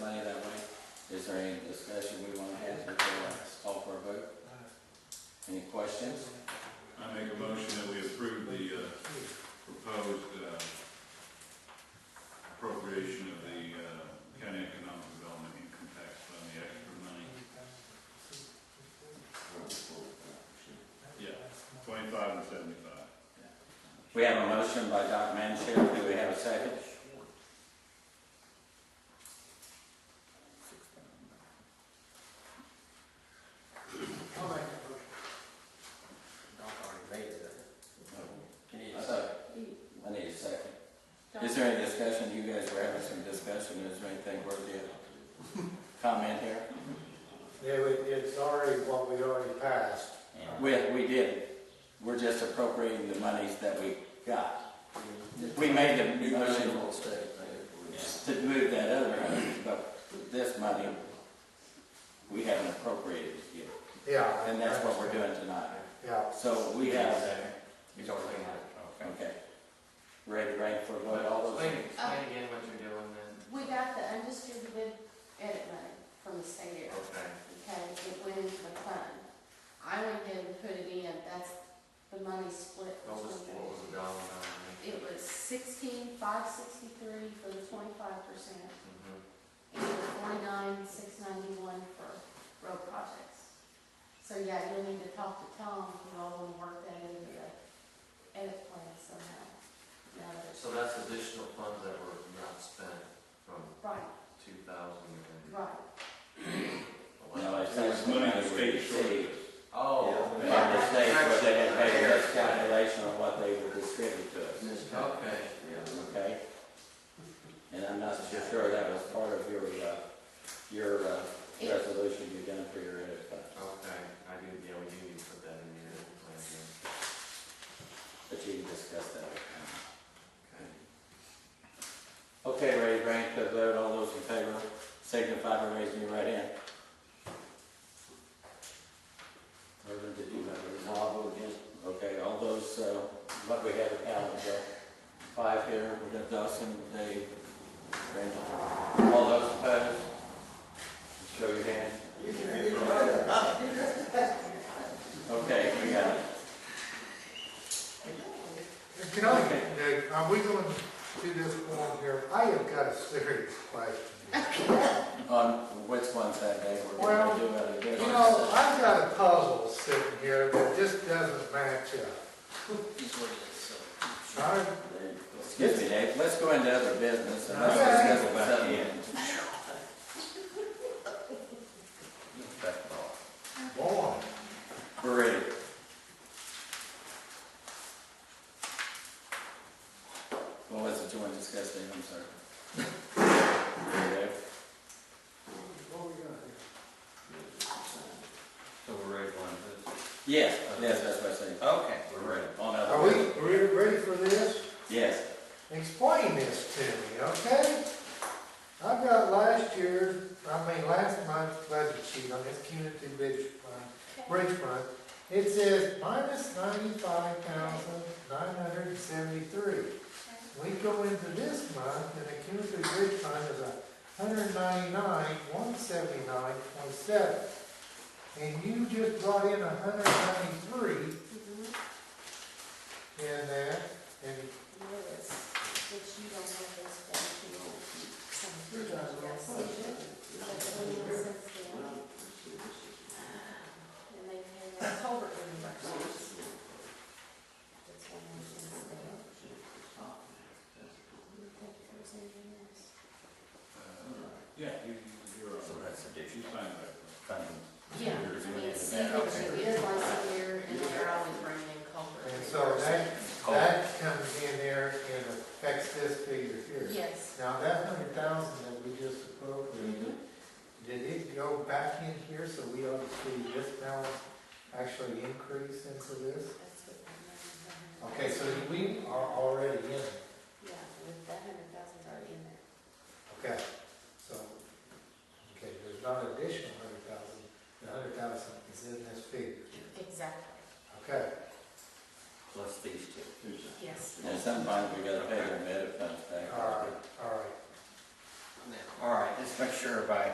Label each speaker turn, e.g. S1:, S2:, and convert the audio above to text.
S1: money that way. Is there any discussion we wanna have before I call for a vote? Any questions?
S2: I make a motion that we approve the, uh, proposed, uh, appropriation of the, uh, county economic development income tax fund, the extra money, yeah, twenty-five and seventy-five.
S1: We have a motion by Dr. Manship, do we have a second?
S3: I'll make that motion.
S1: I need a second. I need a second. Is there any discussion, you guys were having some discussion, is there anything worth it? Comment here?
S3: Yeah, we- it's already what we already passed.
S1: We, we did, we're just appropriating the monies that we got. We made the motion to move that other money, but this money, we haven't appropriated yet.
S3: Yeah.
S1: And that's what we're doing tonight.
S3: Yeah.
S1: So we have,
S4: He's already had
S1: okay. Ready, ready for what, all those?
S4: Explain, explain again what you're doing then.
S5: We got the undistributed edit money from the state,
S4: Okay.
S5: okay, it went into the fund. I went in and put it in, that's the money split.
S4: What was, what was the dollar amount?
S5: It was sixteen, five sixty-three for the twenty-five percent,
S4: Mhm.
S5: and forty-nine, six ninety-one for road projects. So, yeah, you'll need to talk to Tom, you all want to work that into the edit plan somehow. Now that it's-
S4: So that's additional funds that were not spent from
S5: Right,
S4: two thousand and
S5: right.
S1: No,
S4: eleven.
S1: it's
S2: It was money
S1: actually
S2: the state shorted us.
S4: Oh. okay.
S1: By the state, what they had paid us calculation of what they would distribute to us.
S4: Okay.
S1: Okay? And I'm not so sure that was part of your, uh, your, uh, resolution you done for your edit fund,
S4: Okay, I do, yeah, we do need to put that in here. plan again.
S1: but you can discuss that. with them. Okay, ready, bring it to a vote, all those in favor, signify by raising your right hand. Irvin, did you have a? No, Okay, all those, uh, what we have counted, uh, five here, we got Dawson, Dave, Randall, all those opposed? Show your hand. Okay, we got it.
S3: Can I, uh, are we going to do this form here? I have got a serious question.
S1: On which one's that day we're
S3: Well,
S1: gonna do it again?
S3: You know, I've got a puzzle sitting here that just doesn't match up. I,
S1: Excuse me, Dave, let's go into other business and let's
S3: Okay.
S1: discuss it back in.
S3: boy,
S1: We're ready. What was it you wanted to discuss, Dave, I'm sorry? There you go.
S3: what we got here?
S6: So we're ready for this?
S1: Yes, yes, that's what I said.
S6: Okay.
S1: We're ready. On up.
S3: Oh, Are we re- ready for this?
S1: Yes.
S3: Explain this to me, okay? I've got last year's, I mean, last month's budget sheet on this community bridge fund, bridge fund. It says minus ninety-five thousand nine hundred and seventy-three. We go into this month and the community bridge fund is a hundred ninety-nine, one seventy-nine, point seven. And you just brought in a hundred ninety-three
S5: Mhm.
S3: in there and
S5: Lewis, that you don't have those down to your decision, but the union says they don't. And they pay their culvert reimbursements. That's one of the things they don't. You think there's anything else?
S2: Uh, Yeah, you, you're on. You signed that.
S5: Yeah, I mean, it's secret, it is once a year, and they're always bringing in culvert.
S3: And so that,
S6: Cold.
S3: that comes in there and affects this figure here.
S5: Yes.
S3: Now, that hundred thousand that we just appropriated,
S5: Mhm.
S3: did it go back in here so we ought to see this balance actually increase into this?
S5: That's what I'm-
S3: Okay, so we are already in, it.
S5: Yeah, with that hundred thousand already in there.
S3: okay, so, okay, there's not an additional hundred thousand, the hundred thousand is in this figure,
S5: Exactly,
S3: okay?
S6: Plus these two.
S5: yes.
S1: And sometimes we gotta pay them better, but.
S3: All right, all right.
S6: All right, let's make sure by